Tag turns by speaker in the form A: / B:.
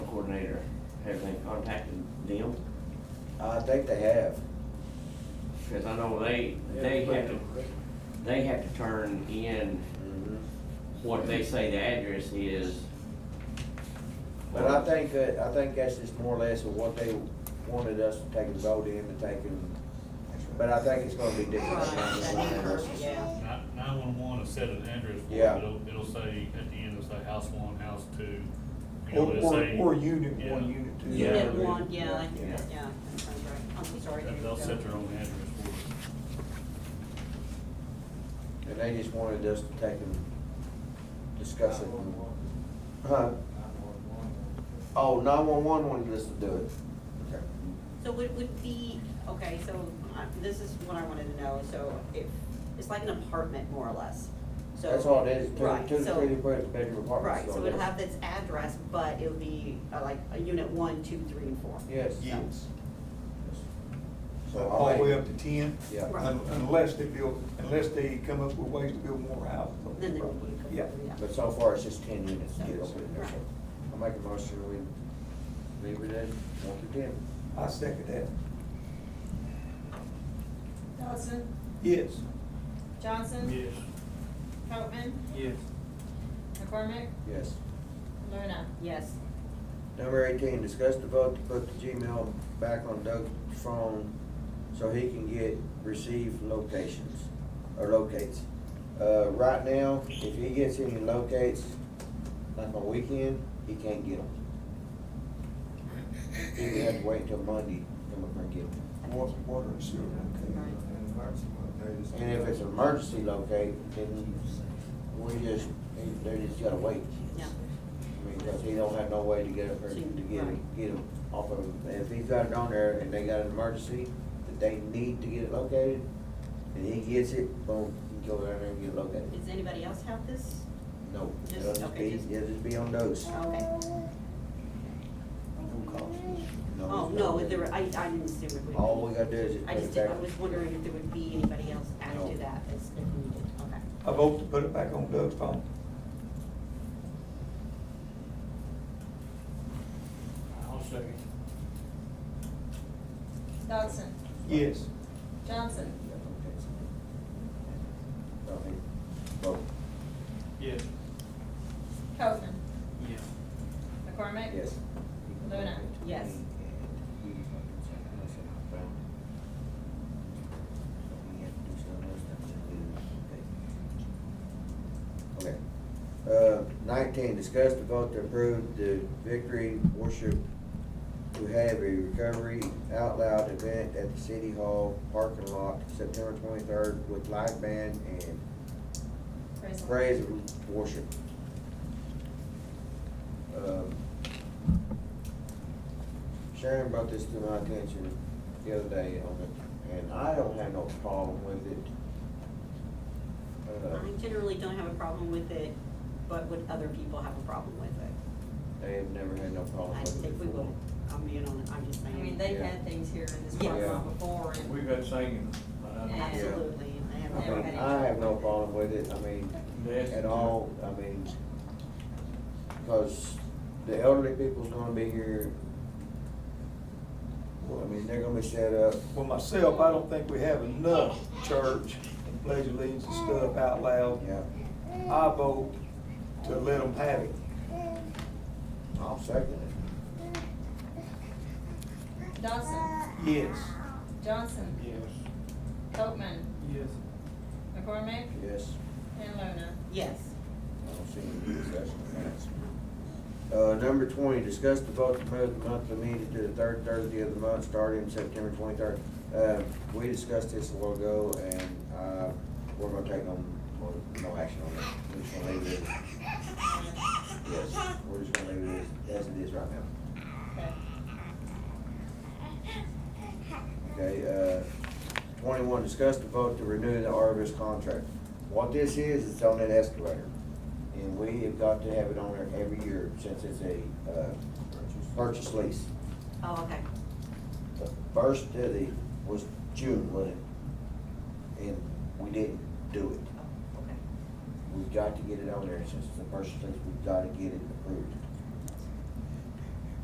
A: coordinator, have they contacted them?
B: I think they have.
A: Cause I know they, they have to, they have to turn in
B: Mhm.
A: what they say the address is.
B: But I think that, I think that's just more or less of what they wanted us to take a vote in and take and, but I think it's gonna be different.
C: Right, that
B: than
C: is, yeah.
D: Nine-one-one will set an address for it,
B: Yeah.
D: it'll, it'll say, at the end, it'll say house one, house two. you know,
E: Or,
D: it'll
E: or,
D: say-
E: or unit one,
D: Yeah.
E: unit two.
C: You
A: Yeah.
C: did one, yeah, I think,
A: Yeah.
C: that- yeah, that sounds right. I'm sorry.
D: That-
C: here
D: They'll
C: we go.
D: set their own address for it.
B: And they just wanted us to take and discuss it. Huh? Oh, nine-one-one wanted us to do it. Okay.
C: So would, would be, okay, so uh, this is what I wanted to know, so if, it's like an apartment more or less, so.
B: That's all it is, two,
C: Right,
B: two to
C: so-
B: three bedroom apartments.
C: Right, so it'd have this address, but it would be uh, like a unit one, two, three, and four.
B: Yes.
E: Yes.
B: So
E: All
B: I
E: the way up
B: think,
E: to ten.
B: Yeah.
C: Right.
E: Un- Unless they build, unless they come up with ways to build more houses. on the
C: Then there would
E: property.
C: be a couple,
E: Yeah.
C: yeah.
B: but so far it's just ten units.
C: Yes.
B: Yes.
C: Right.
B: I make a motion, we leave it at one to ten.
E: I second that.
F: Dawson,
E: Yes.
F: Johnson,
D: Yes.
F: Copman,
E: Yes.
F: McCormick,
B: Yes.
F: Luna.
C: Yes,
B: Number eighteen, discuss the vote to put the Gmail back on Doug's phone so he can get, receive locations, or locates. Uh, right now, if he gets any locates, like on weekend, he can't get them. He would have to wait until Monday, then we're gonna get them.
E: Water, water and sewer, okay.
B: And if it's an emergency locate, then we just, they- they just gotta wait.
C: yeah,
B: I mean, Because he don't have no way to get up there to get him, get him off of him. If he's got it on there and they got an emergency that they need to get it located, and he gets it, boom, he go down there and get it located.
C: does anybody else have this?
B: No, it'll
C: Just-
B: just
C: okay, Oh,
B: be,
C: just-
B: it'll just be on those.
C: Okay,
E: No cost.
C: oh, no, there, I, I didn't assume it would be.
B: All we gotta do is just put
C: I just
B: it
C: did,
B: back.
C: I was wondering if there would be anybody else added
B: No.
C: to that as if needed, okay.
E: I vote to put it back on Doug's phone.
D: I'll second.
F: Dawson,
E: Yes.
F: Johnson,
B: Yeah, okay. So he- vote.
D: Yes.
F: Copman,
D: Yeah.
F: McCormick.
B: Yes.
F: Luna.
C: Yes.
B: Okay. Uh, nineteen, discuss the vote to approve the Victory Worship to have a recovery out loud event at the City Hall parking lot September twenty-third with live band and
F: Presley.
B: praise and worship. Um, Sharon brought this to my attention the other day on it, and I don't have no problem with it. Uh,
C: I generally don't have a problem with it, but would other people have a problem with it?
B: They have never had no problem
C: I
B: with it.
C: think we
B: Oh, before.
C: would, I'm being on, I'm just
F: I mean,
C: saying,
F: they've
B: Yeah.
F: had things here in this
C: Yeah.
F: parking lot before, and
G: We've got singing, uh,
C: absolutely, and they
B: I
C: have
B: mean,
C: everybody.
B: I have no problem with it, I mean,
G: that's-
B: at all, I mean, because the elderly people's gonna be here. I mean, they're gonna be set up,
E: Well, myself, I don't think we have enough church and pledge allegiance and stuff out loud.
B: yeah,
E: I vote to let them have it.
B: I'm second it.
F: Dawson,
E: Yes.
F: Johnson. Yes. Copman,
G: Yes.
F: McCormick,
B: Yes,
F: and Luna.
C: Yes,
B: I don't see any discussion on that. Uh, number twenty, discuss the vote to move the monthly meeting to the third Thursday of the month, starting September twenty-third. Uh, we discussed this a while ago, and, uh, we're gonna take no, well, no action on it. We're just gonna leave it, as- yes, we're just gonna leave it as, as it is right now.
F: Okay.
B: Okay, uh, twenty-one, discuss the vote to renew the Arvis contract. What this is, it's on that escalator, and we have got to have it on there every year since it's a, uh, purchase lease.
C: oh, okay,
B: The first of the, was June, wasn't it? And we didn't do it.
C: oh, okay,
B: We've got to get it on there since it's a purchase lease, we've got to get it approved.